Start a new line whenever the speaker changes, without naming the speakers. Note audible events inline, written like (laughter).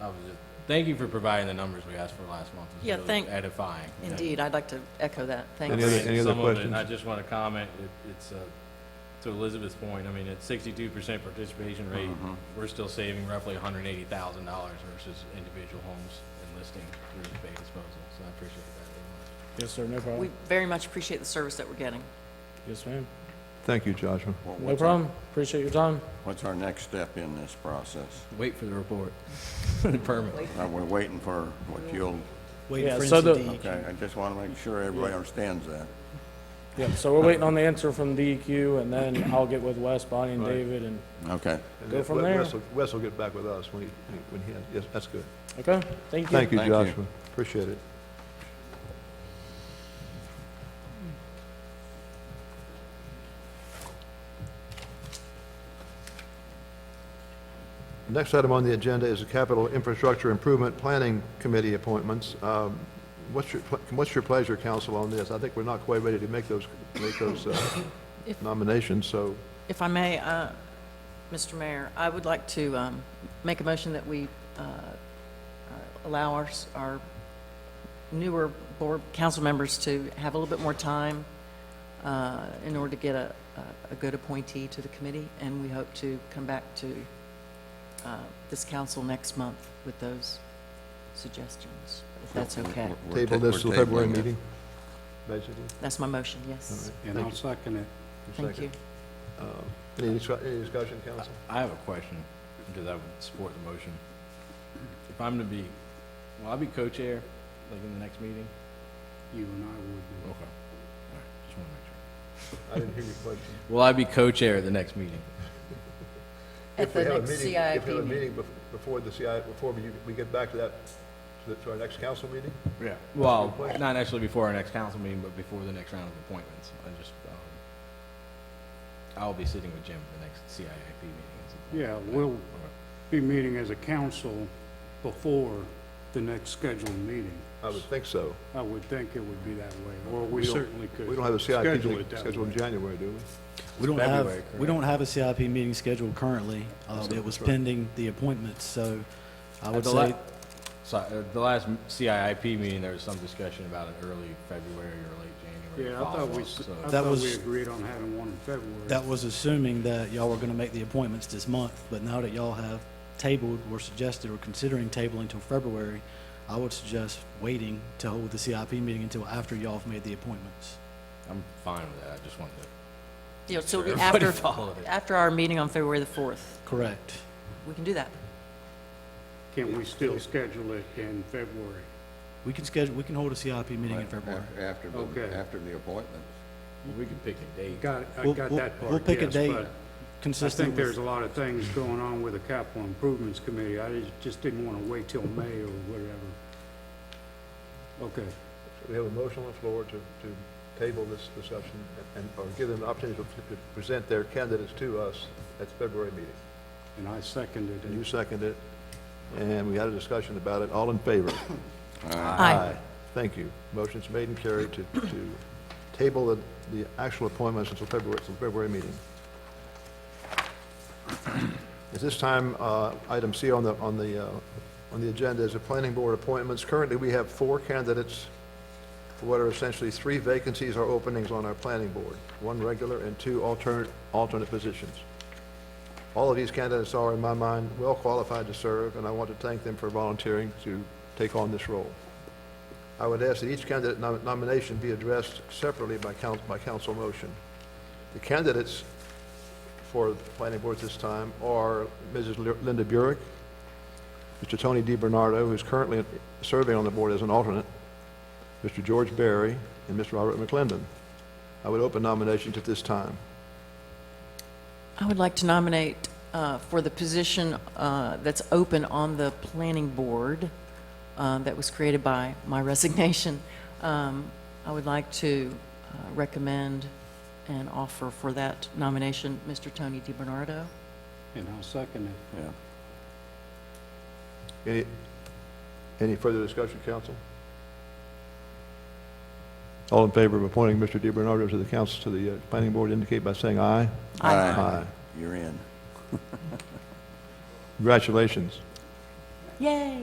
I was just, thank you for providing the numbers we asked for last month. It's
Yeah,
really
thank-
Edifying. you know.
Indeed, I'd like to echo that.
Some
Thanks.
of
Any other-
it,
any other questions?
I just want to comment, it- it's, uh, to Elizabeth's point, I mean, at sixty-two percent participation rate,
Mm-hmm.
we're still saving roughly hundred and eighty thousand dollars versus individual homes enlisting through the bay disposal, so I appreciate that very much.
Yes, sir, no
We
problem.
very much appreciate the service that we're getting.
Yes, ma'am.
Thank you, Joshua.
Well,
No
what's our-
problem. Appreciate your time.
What's our next step in this process?
Wait for the (laughs) report, for the permit.
Uh, We're waiting for what you'll,
Wait
Yeah,
for
so
instance,
the-
the-
okay, I just want to make sure everybody understands that.
Yep, so we're waiting on the answer from DEQ, and then I'll get with Wes, Bonnie, and
Right.
David, and,
Okay.
And
Go
then
from
Wes-
there.
Wes will- Wes will get back with us when he, when he has, yes, that's good.
okay? Thank you.
Thank you,
Thank you.
Joshua. Appreciate it. Next item on the agenda is the Capital Infrastructure Improvement Planning Committee appointments. Um, What's your, ple- what's your pleasure, council, on this? I think we're not quite ready to make those, make those uh,
If-
nominations, so
If I may, uh, Mr. Mayor, I would like to um, make a motion that we uh, uh, allow our s- our newer board, council members to have a little bit more time uh, in order to get a a- a good appointee to the committee, and we hope to come back to uh, this council next month with those suggestions, if that's okay.
We're- we're
table
ta-
this
we're
till February
tabling it.
meeting, basically.
That's my motion,
All
yes.
right.
and I'll second it.
Thank you.
Uh, Any discu- any discussion, council?
I have a question, because I would support the motion. If I'm to be, will I be co-chair, like in the next meeting?
You and I would do.
Okay. All right, just want to make sure.
I didn't hear your question.
Will I be co-chair at the next meeting?
At
If we
the
have a
next
meeting- If we
CIP
have a
meeting.
meeting bef- before the CI, before we we get back to that, to the- to our next council meeting?
Yeah. Well,
That's a good question.
not actually before our next council meeting, but before the next round of appointments. I just, um, I'll be sitting with Jim for the next CIIP meeting. at some point.
Yeah, we'll be meeting as a council before the next scheduled meeting.
I would think so.
I would think it would be that way, or Uh, we
We don't-
certainly could.
We don't have a CIP
schedule
meeting
it that
scheduled in
way.
January, do we?
We don't
have-
have,
February.
We don't have a CIP meeting scheduled currently. Uh, It was
That's right.
pending the appointments, so I
At
would
the la-
say,
So, uh, the last CIIP meeting, there was some discussion about an early February or late January
yeah, I thought we,
follow-up,
s-
so.
I
That
thought we
was-
agreed on having one in February.
that was assuming that y'all were going to make the appointments this month, but now that y'all have tabled or suggested or considering tabling till February, I would suggest waiting to hold the CIP meeting until after y'all have made the appointments.
I'm fine with that. I just wanted to.
Yeah, so it'll
Sure.
be
Everybody
after,
followed it.
after our meeting on February the 4th.
Correct.
We can do that.
Can we still schedule it in February?
We can schedule, we can hold a CIP meeting in
Right,
February.
af- After,
Okay.
the- after the appointment.
We could pick a date.
Got, I
We'll-
got
we'll-
that part,
We'll pick a
yes,
date
but- I
consistent
think
with.
there's a lot of things going on with the capital improvements committee. I just- just didn't want to wait till May or whatever. Okay,
We have a motion on the floor to, to table this discussion and, or give them an opportunity to to present their candidates to us at the February meeting.
and I seconded
And you
it.
seconded it, and we had a discussion about it. All in favor?
Aye.
Thank you. Motion's made and carried to, to table the, the actual appointments until February, until February meeting. At this time, uh, item C on the, on the, uh, on the agenda is the planning board appointments. Currently, we have four candidates for what are essentially three vacancies or openings on our planning board, one regular and two alternate, alternate positions. All of these candidates are, in my mind, well qualified to serve, and I want to thank them for volunteering to take on this role. I would ask that each candidate nom- nomination be addressed separately by council, by council motion. The candidates for the planning board this time are Mrs. Li- Linda Burek, Mr. Tony Di Bernardo, who's currently serving on the board as an alternate, Mr. George Barry, and Mr. Robert McClendon. I would open nominations at this time.
I would like to nominate uh, for the position uh, that's open on the planning board uh, that was created by my (laughs) resignation. Um, I would like to uh, recommend and offer for that nomination, Mr. Tony DiBernardo.
And I'll second it.
Yeah.
Any, any further discussion, council? All in favor of appointing Mr. DiBernardo to the council, to the uh, planning board, indicate by saying aye.
Aye.
Aye.
You're in.
Congratulations.
Yay!